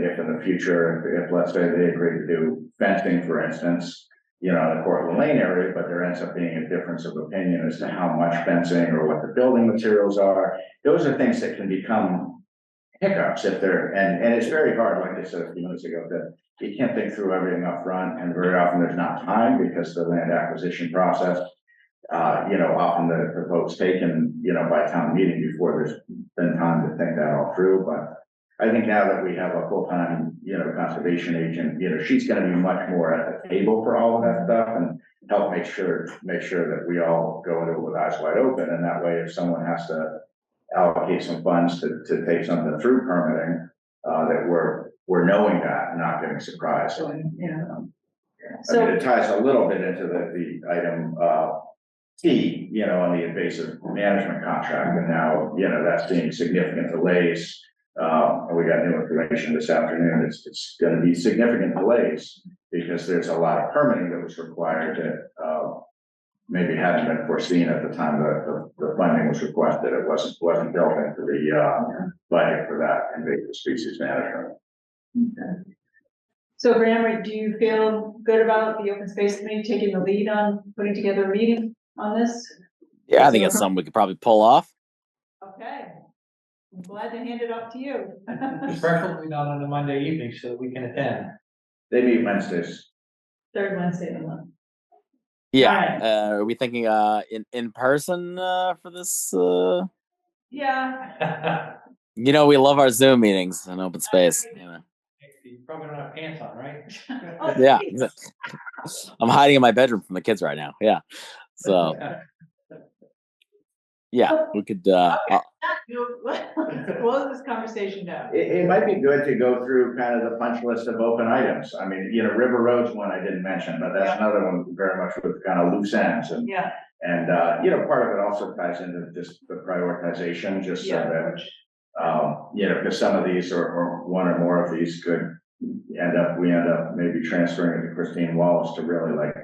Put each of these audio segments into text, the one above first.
the future, if, if let's say they agree to do fencing, for instance, you know, in the Cortland Lane area, but there ends up being a difference of opinion as to how much fencing or what the building materials are. Those are things that can become hiccups if they're, and, and it's very hard, like I said a few minutes ago, that you can't think through everything up front, and very often there's not time because the land acquisition process uh, you know, often the, the vote's taken, you know, by town meeting before there's been time to think that all through, but. I think now that we have a full-time, you know, conservation agent, you know, she's gonna be much more at the table for all of that stuff and. Help make sure, make sure that we all go into it with eyes wide open, and that way if someone has to. Allocate some funds to, to take something through permitting, uh, that we're, we're knowing that and not getting surprised. Um, So, yeah. I mean, So, it ties a little bit into the, the item, uh, T, you know, on the invasive management contract, and now, you know, that's seeing significant delays. Um, and we got new information this afternoon, it's, it's gonna be significant delays, because there's a lot of permitting that was required that, uh, maybe hadn't been foreseen at the time that the, the funding was requested, it wasn't, wasn't built into the, uh, budget for that invasive species management. so Graham, do you feel good about the open space committee taking the lead on putting together a meeting on this? Yeah, I think it's something we could probably pull off. Okay. I'm glad to hand it off to you. Preferably not on a Monday evening so that we can attend. They meet Wednesdays, Third Wednesday of the month. Yeah. Uh, are we thinking uh in in person uh for this uh Yeah, you know we love our Zoom meetings in open space, you know. You probably don't have pants on, right? Oh, Yeah. geez. exa- I'm hiding in my bedroom from the kids right now. Yeah. So, yeah, we could uh uh, Close this conversation down. It, it might be good to go through kind of the punch list of open items. I mean, you know, River Road's one I didn't mention, but that's another one very much with kind of loose ends and. Yeah, And, uh, you know, part of it also ties into just the prioritization, just so Yeah. that, um, you know, because some of these or, or one or more of these could end up, we end up maybe transferring it to Christine Wallace to really like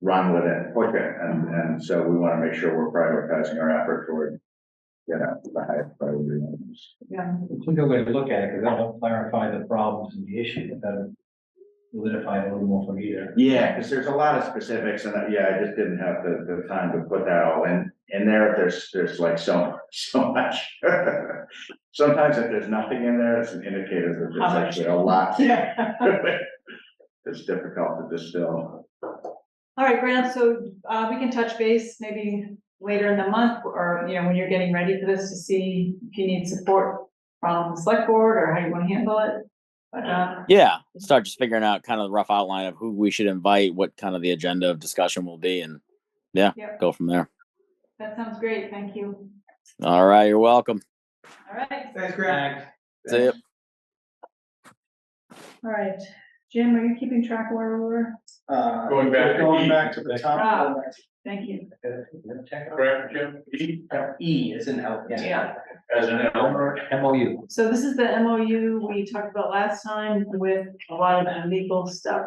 run with it, push it. And, and so we want to make sure we're prioritizing our effort toward, you know, the highest priority. items. yeah. It's a good way to look at it because that'll clarify the problems and the issue, but that'll solidify it a little more for me there. Yeah, because there's a lot of specifics and uh, yeah, I just didn't have the, the time to put that all in, in there. There's, there's like so, so much. Sometimes if there's nothing in there, it's an indicator that How there's much? actually a lot. Yeah. It's difficult to distill. All right, Graham, so uh, we can touch base maybe later in the month or, you know, when you're getting ready for this to see if you need support from the select board or how you want to handle it. But, uh, yeah, start just figuring out kind of the rough outline of who we should invite, what kind of the agenda of discussion will be and yeah, Yep. go from there. that sounds great. Thank you. All right, you're welcome. All right, Thanks, Greg. See ya. all right. Jim, are you keeping track of where we were? Uh, Going back to E. Going back to the top. Thank you. Correct, Jim? E E is an L. Yeah. as an L. M O U. So this is the MOU we talked about last time with a lot of legal stuff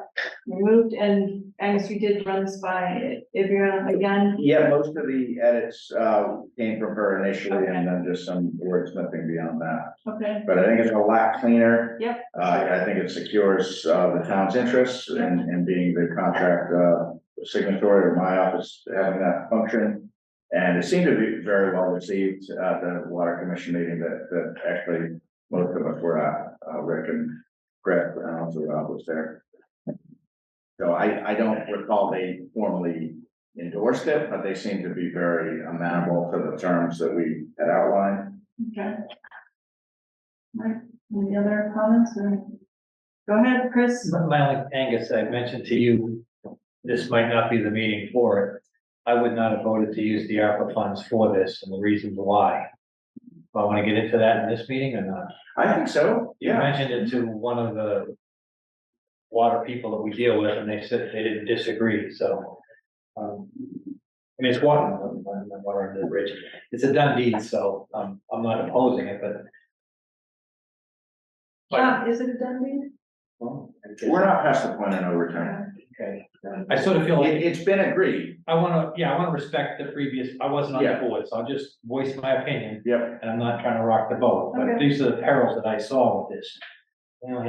removed and Angus, we did run this by everyone again. Yeah, most of the edits, uh, came from her initially and then just some wordsmithing beyond that. Okay, But I think it's a lot cleaner. Yep. Uh, I think it secures, uh, the town's interests in, in being the contract, uh, signatory or my office having that function. And it seemed to be very well received at the water commission meeting that, that actually most of us were at, uh, Rick and Greg, and also Rob was there. So I, I don't recall they formally endorsed it, but they seemed to be very amenable to the terms that we had outlined. okay. All right, any other comments or? Go ahead, Chris. My only, Angus, I mentioned to you, this might not be the meeting for it. I would not have voted to use the ARPA funds for this and the reasons why. Do I want to get into that in this meeting or not? I think so, You yeah. mentioned it to one of the water people that we deal with, and they said they didn't disagree, so. um, I mean, it's water, um, water under the bridge, it's a done deed, so um, I'm not opposing it, but. Bob, Ah, is it a done deal? well, I guess- We're not past the point of no return. Okay, I sort of feel like, It, it's been agreed. I wanna, yeah, I wanna respect the previous, I wasn't on Yeah. the board, so I'll just voice my opinion, Yep. and I'm not trying to rock the boat, but Okay. these are the perils that I saw with this. You know,